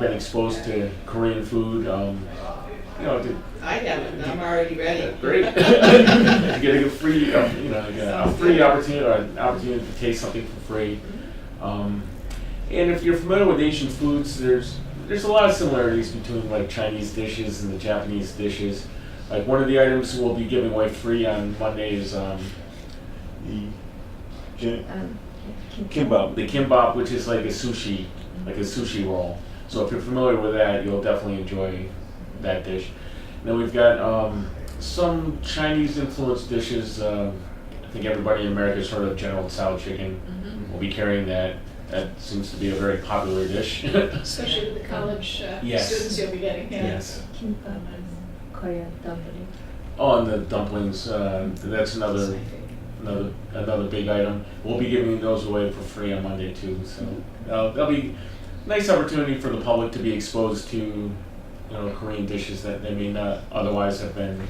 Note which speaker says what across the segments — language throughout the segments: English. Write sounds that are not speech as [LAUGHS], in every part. Speaker 1: been exposed to Korean food. Um, you know, did,
Speaker 2: I haven't, I'm already ready. [LAUGHS]
Speaker 1: great. [LAUGHS] you get a free, um, you know, you get a free opportunity or an opportunity to taste something for free. Um, and if you're familiar with Asian foods, there's there's a lot of similarities between like Chinese dishes and the Japanese dishes. Like one of the items we'll be giving away free on Monday is um, the Jin-
Speaker 3: Um, can- can-
Speaker 1: Kimbap. The kimbap, which is like a sushi, like a sushi roll. So if you're familiar with that, you'll definitely enjoy that dish. And then we've got um, some Chinese influenced dishes. Um, I think everybody in America has heard of General Tso chicken. We'll be carrying that. That seems to be a very popular dish. [LAUGHS]
Speaker 4: Especially with the college uh,
Speaker 1: Yes.
Speaker 4: students you'll be getting, yeah.
Speaker 1: yes.
Speaker 3: Kimbap is Korean dumpling.
Speaker 1: Oh, and the dumplings. Uh, that's another another another big item. We'll be giving those away for free on Monday too. So uh, that'll be a nice opportunity for the public to be exposed to you know Korean dishes that they may not otherwise have been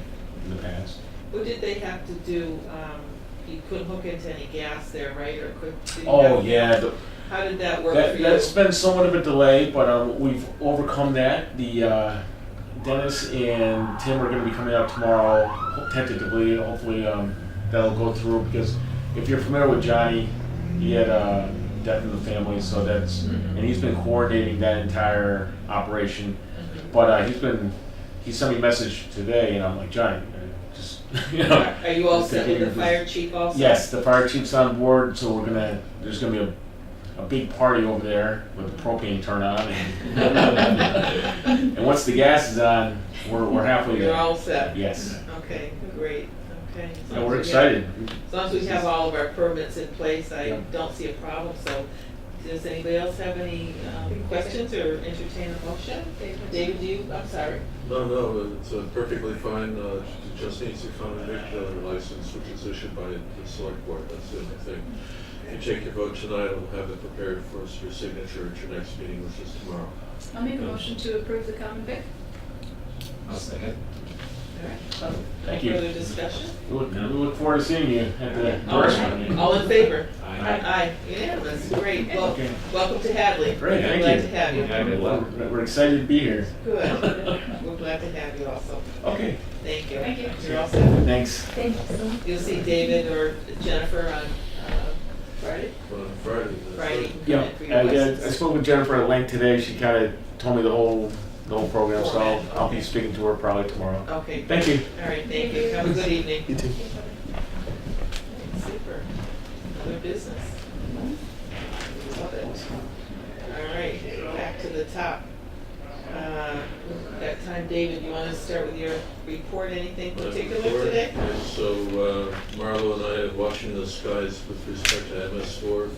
Speaker 1: in the past.
Speaker 2: What did they have to do, um, you couldn't hook into any gas there, right, or could? did you
Speaker 1: Oh
Speaker 2: have-
Speaker 1: yeah, the,
Speaker 2: How did that work for
Speaker 1: that,
Speaker 2: you?
Speaker 1: that's been somewhat of a delay, but um, we've overcome that. The uh, Dennis and Tim are going to be coming out tomorrow, tentatively. Hopefully, um, that'll go through because if you're familiar with Johnny, he had uh, death in the family, so that's
Speaker 2: Mhm.
Speaker 1: and he's been coordinating that entire operation. But uh, he's been he sent me a message today, and I'm like Johnny, uh, just [LAUGHS] you know.
Speaker 2: Are are
Speaker 1: [LAUGHS]
Speaker 2: you all
Speaker 1: just
Speaker 2: set
Speaker 1: taking
Speaker 2: with the
Speaker 1: your-
Speaker 2: fire chief also? [LAUGHS]
Speaker 1: Yes, [LAUGHS] the fire chief's on board, so we're gonna, there's gonna be a, a big party over there with the propane turned
Speaker 2: [LAUGHS]
Speaker 1: on. And and once the gas is on, we're, we're halfway
Speaker 2: You're
Speaker 1: there.
Speaker 2: all set?
Speaker 1: Yes,
Speaker 2: Okay, great, okay. As long
Speaker 1: and we're
Speaker 2: as we have-
Speaker 1: excited.
Speaker 2: As long as we have all of our permits in place, I
Speaker 1: Yeah.
Speaker 2: don't see a problem, so does anybody else have any um, questions or entertain a motion? David, do you, I'm sorry.
Speaker 5: No, no, it's uh, perfectly fine, uh, she just needs to find a victim license, which is issued by the select board, that's the only thing. If you take your vote tonight, we'll have it prepared for us for signature at your next meeting, which is tomorrow.
Speaker 4: I'll make a motion to approve the common vic.
Speaker 2: All right.
Speaker 1: Thank you.
Speaker 2: Further discussion?
Speaker 1: We look, we look forward to seeing you at the
Speaker 2: All
Speaker 1: restaurant.
Speaker 2: right. All in favor?
Speaker 6: Aye.
Speaker 2: Aye, unanimous, great, well,
Speaker 1: Okay.
Speaker 2: welcome to Hadley.
Speaker 1: Great, thank
Speaker 2: Glad
Speaker 1: you.
Speaker 2: to have you,
Speaker 6: Aye.
Speaker 1: We're we're excited to be here.
Speaker 2: good, we're glad to have you also,
Speaker 1: Okay,
Speaker 2: thank you.
Speaker 4: Thank you.
Speaker 2: are all set.
Speaker 1: thanks.
Speaker 3: Thank you so much.
Speaker 2: You'll see David or Jennifer on uh, Friday,
Speaker 5: But on Friday, that's
Speaker 2: Friday. you
Speaker 5: right.
Speaker 2: can come
Speaker 1: Yeah,
Speaker 2: in for your
Speaker 1: I, I
Speaker 2: license.
Speaker 1: I spoke with Jennifer at length today. She kind of told me the whole, the whole program, so I'll, I'll be speaking to her probably tomorrow.
Speaker 2: Okay,
Speaker 1: Thank you.
Speaker 2: all right, thank you, have a good evening.
Speaker 1: You too.
Speaker 2: Super. Other business. Love it. All right, back to the top. Uh, That time, David, you want to start with your report, anything
Speaker 5: Uh,
Speaker 2: particular
Speaker 5: before-
Speaker 2: today?
Speaker 5: yes, So uh, Marlo and I are watching the skies with respect to MS four.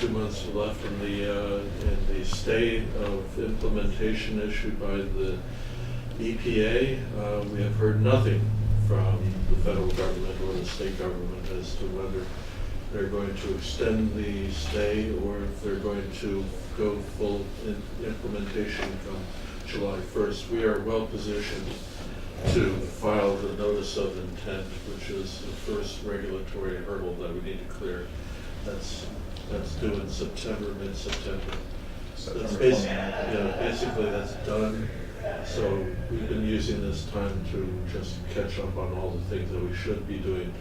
Speaker 5: Two months left in the, uh, in the stay of implementation issued by the EPA. Uh, We have heard nothing from the federal government or the state government as to whether they're going to extend the stay or if they're going to go full in- implementation from July 1st. We are well positioned to file the notice of intent, which is the first regulatory hurdle that we need to clear. That's, that's due in September, mid-September. That's basically, yeah, basically that's done. So we've been using this time to just catch up on all the things that we should be doing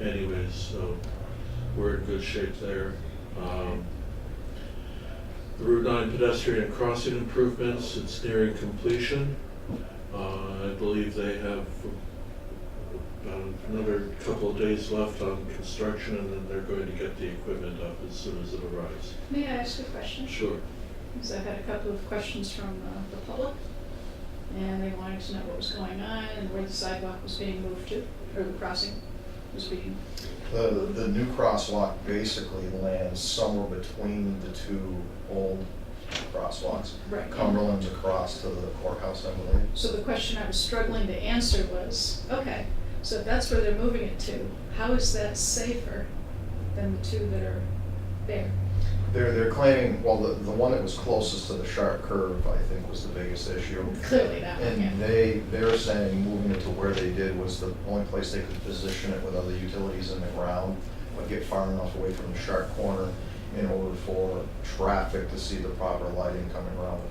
Speaker 5: anyways, so we're in good shape there. Um, The Route 9 pedestrian crossing improvements, it's nearing completion. Uh, I believe they have about another couple of days left on construction, and then they're going to get the equipment up as soon as it arrives.
Speaker 4: May I ask a question?
Speaker 5: Sure.
Speaker 4: Because I've had a couple of questions from uh, the public, and they wanted to know what was going on and where the sidewalk was being moved to, or the crossing was being,
Speaker 7: The, the new crosswalk basically lands somewhere between the two old crosswalks.
Speaker 4: right.
Speaker 7: Cumberland's across to the courthouse, I believe.
Speaker 4: So the question I was struggling to answer was, okay, so if that's where they're moving it to, how is that safer than the two that are there?
Speaker 7: They're, they're claiming, well, the, the one that was closest to the sharp curve, I think, was the biggest issue.
Speaker 4: Clearly that one, yeah.
Speaker 7: And they, they're saying moving it to where they did was the only place they could position it with other utilities in the ground, but get far enough away from the sharp corner in order for traffic to see the proper lighting coming around the